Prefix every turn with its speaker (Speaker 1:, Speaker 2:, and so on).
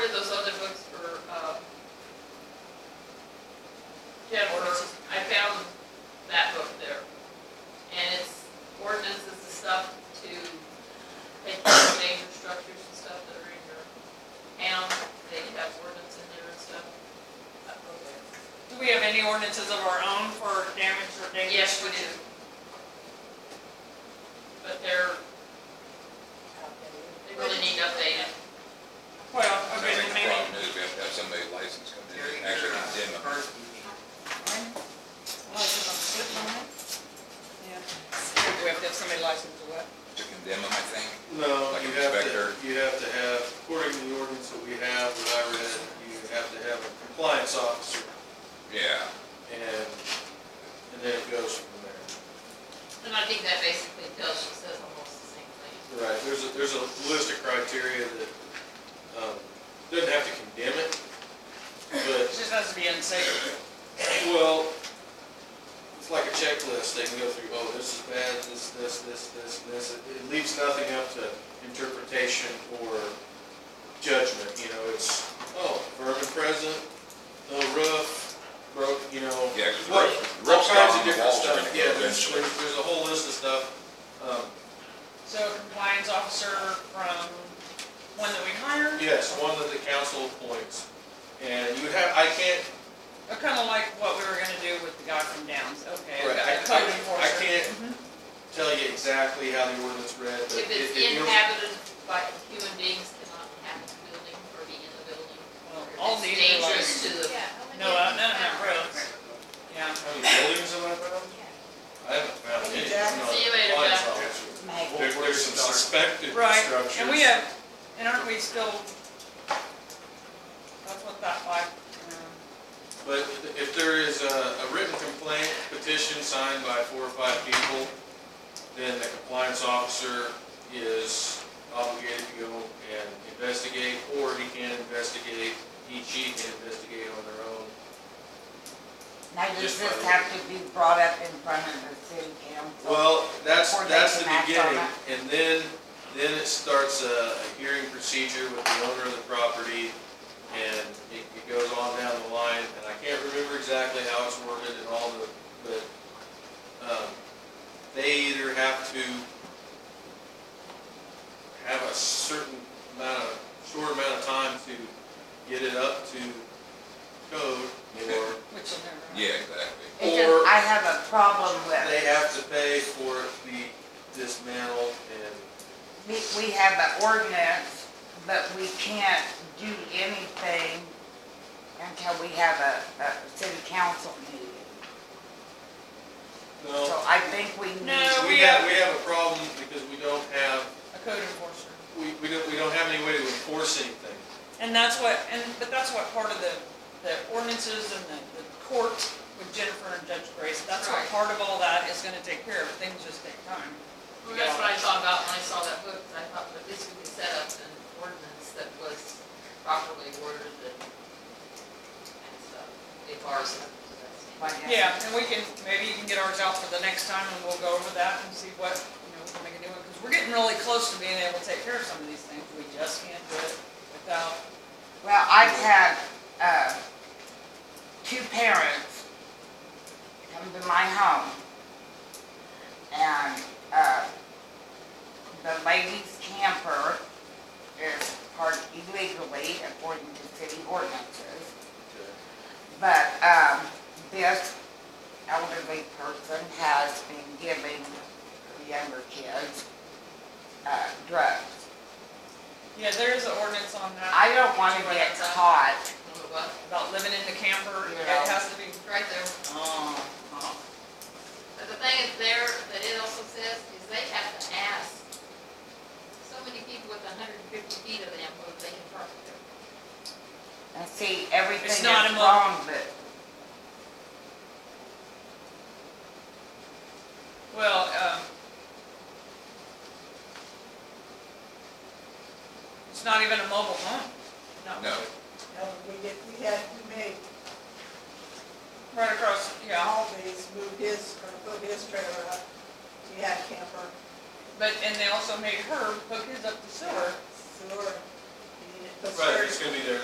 Speaker 1: um,
Speaker 2: any ordinances of our own for damage or damage?
Speaker 1: Yes, we do. But they're, they really need updated.
Speaker 2: Well,
Speaker 3: I
Speaker 2: okay,
Speaker 3: think
Speaker 2: then maybe,
Speaker 3: the problem is we have to have somebody licensed come in and actually condemn them.
Speaker 4: Do we have to have somebody licensed to what?
Speaker 3: To condemn them, I think.
Speaker 5: No,
Speaker 3: Like
Speaker 5: you
Speaker 3: an
Speaker 5: have
Speaker 3: inspector?
Speaker 5: to, you have to have, according to the ordinance that we have, that I read, you have to have a compliance officer,
Speaker 3: Yeah.
Speaker 5: and, and then it goes from there.
Speaker 1: And I think that basically tells, she says almost the same thing.
Speaker 5: Right, there's a, there's a list of criteria that, um, doesn't have to condemn it, but
Speaker 2: it just has to be unsafe.
Speaker 5: Well, it's like a checklist, they can go through, oh, this is bad, this, this, this, this, and this. It- It leaves nothing up to interpretation or judgment, you know, it's, oh, vermin present, no roof, broke, you know.
Speaker 3: Yeah, 'cause the
Speaker 5: what-
Speaker 3: roof- the
Speaker 5: All
Speaker 3: roof's down,
Speaker 5: kinds of
Speaker 3: the
Speaker 5: different
Speaker 3: walls are
Speaker 5: stuff,
Speaker 3: gonna go
Speaker 5: yeah, there's,
Speaker 3: eventually.
Speaker 5: there's there's a whole list of stuff. Um,
Speaker 2: So a compliance officer from one that we hired,
Speaker 5: Yes, one that the council appoints, and you have, I can't,
Speaker 2: kind of like what we were gonna do with the guy from Downs, okay.
Speaker 5: Right, I-
Speaker 2: a code
Speaker 5: I- I
Speaker 2: enforcer.
Speaker 5: can't-
Speaker 2: Mhm.
Speaker 5: tell you exactly how the ordinance read, but.
Speaker 1: If it's
Speaker 5: it- it- you're-
Speaker 1: inhabited by human beings cannot inhabit the building or be in the building. or
Speaker 2: Well,
Speaker 1: if
Speaker 2: all
Speaker 1: it's
Speaker 2: these are
Speaker 1: Dangerous to
Speaker 2: like-
Speaker 1: the,
Speaker 2: No, uh, none of them roads, yeah.
Speaker 5: How many buildings am I found? I haven't found any. No,
Speaker 1: See you later,
Speaker 5: mine's
Speaker 1: Jeff.
Speaker 5: not. There- There's some suspected
Speaker 2: Right,
Speaker 5: structures.
Speaker 2: and we have, and aren't we still, that's what that like, um,
Speaker 5: But if there is a, a written complaint, petition signed by four or five people, then the compliance officer is obligated to go and investigate, or he can investigate, he, she can investigate on their own.
Speaker 6: Now, does this have to be brought up in front of the city council?
Speaker 5: Well, that's,
Speaker 6: Before they
Speaker 5: that's the
Speaker 6: can act on
Speaker 5: beginning,
Speaker 6: that.
Speaker 5: and then, then it starts a, a hearing procedure with the owner of the property, and it, it goes on down the line, and I can't remember exactly how it's worded and all the, but, um, they either have to have a certain amount of, short amount of time to get it up to code, or
Speaker 2: which will never. happen.
Speaker 3: Yeah, exactly.
Speaker 6: It's
Speaker 5: or-
Speaker 6: just, I have a problem
Speaker 5: they
Speaker 6: with,
Speaker 5: have to pay for it to be dismantled and
Speaker 6: we, we have an ordinance, but we can't do anything until we have a, a city council meeting. So
Speaker 5: No,
Speaker 6: I think we need.
Speaker 2: No.
Speaker 5: we have, we have a problem because we don't have,
Speaker 2: A code enforcer.
Speaker 5: we, we don't, we don't have any way to enforce anything.
Speaker 2: And that's what, and, but that's what part of the, the ordinances and the, the court with Jennifer and Judge Grace, that's what
Speaker 1: Right.
Speaker 2: part of all that is gonna take care of, things just take time.
Speaker 1: well, that's what I thought about when I saw that book, and I thought, but this could be set up in ordinance that was properly worded and, and stuff, if ours.
Speaker 6: Like,
Speaker 2: Yeah, and we can, maybe you can get ours out for the next time and we'll go over that and see what, you know, we can make a new one, because we're getting really close to being able to take care of some of these things, we just can't do it without,
Speaker 6: Well, I've had, uh, two parents come to my home. And, uh, the lady's camper is parked illegally according to city ordinances. But, um, this elderly person has been giving the younger kids, uh, drugs.
Speaker 2: yeah, there is an ordinance on that,
Speaker 6: I don't wanna get caught
Speaker 2: about living in the camper, it
Speaker 6: Yeah. Uh-huh.
Speaker 2: has to be,
Speaker 1: Right there.
Speaker 2: oh, oh.
Speaker 1: But the thing is there, that it also says, is they have to ask so many people with hundred and fifty feet of them whether they can park there.
Speaker 6: And see, everything
Speaker 2: It's
Speaker 6: is
Speaker 2: not a mo-
Speaker 6: wrong, but
Speaker 2: Well, um, it's not even a mobile home.
Speaker 3: No,
Speaker 7: No, we did, we had, we made
Speaker 2: Right across, yeah,
Speaker 7: Always moved his, or put his trailer up. He had camper,
Speaker 2: but, and they also made her hook his up to sewer.
Speaker 7: sewer, he needed to put
Speaker 5: Right,
Speaker 7: stairs
Speaker 5: it's gonna be there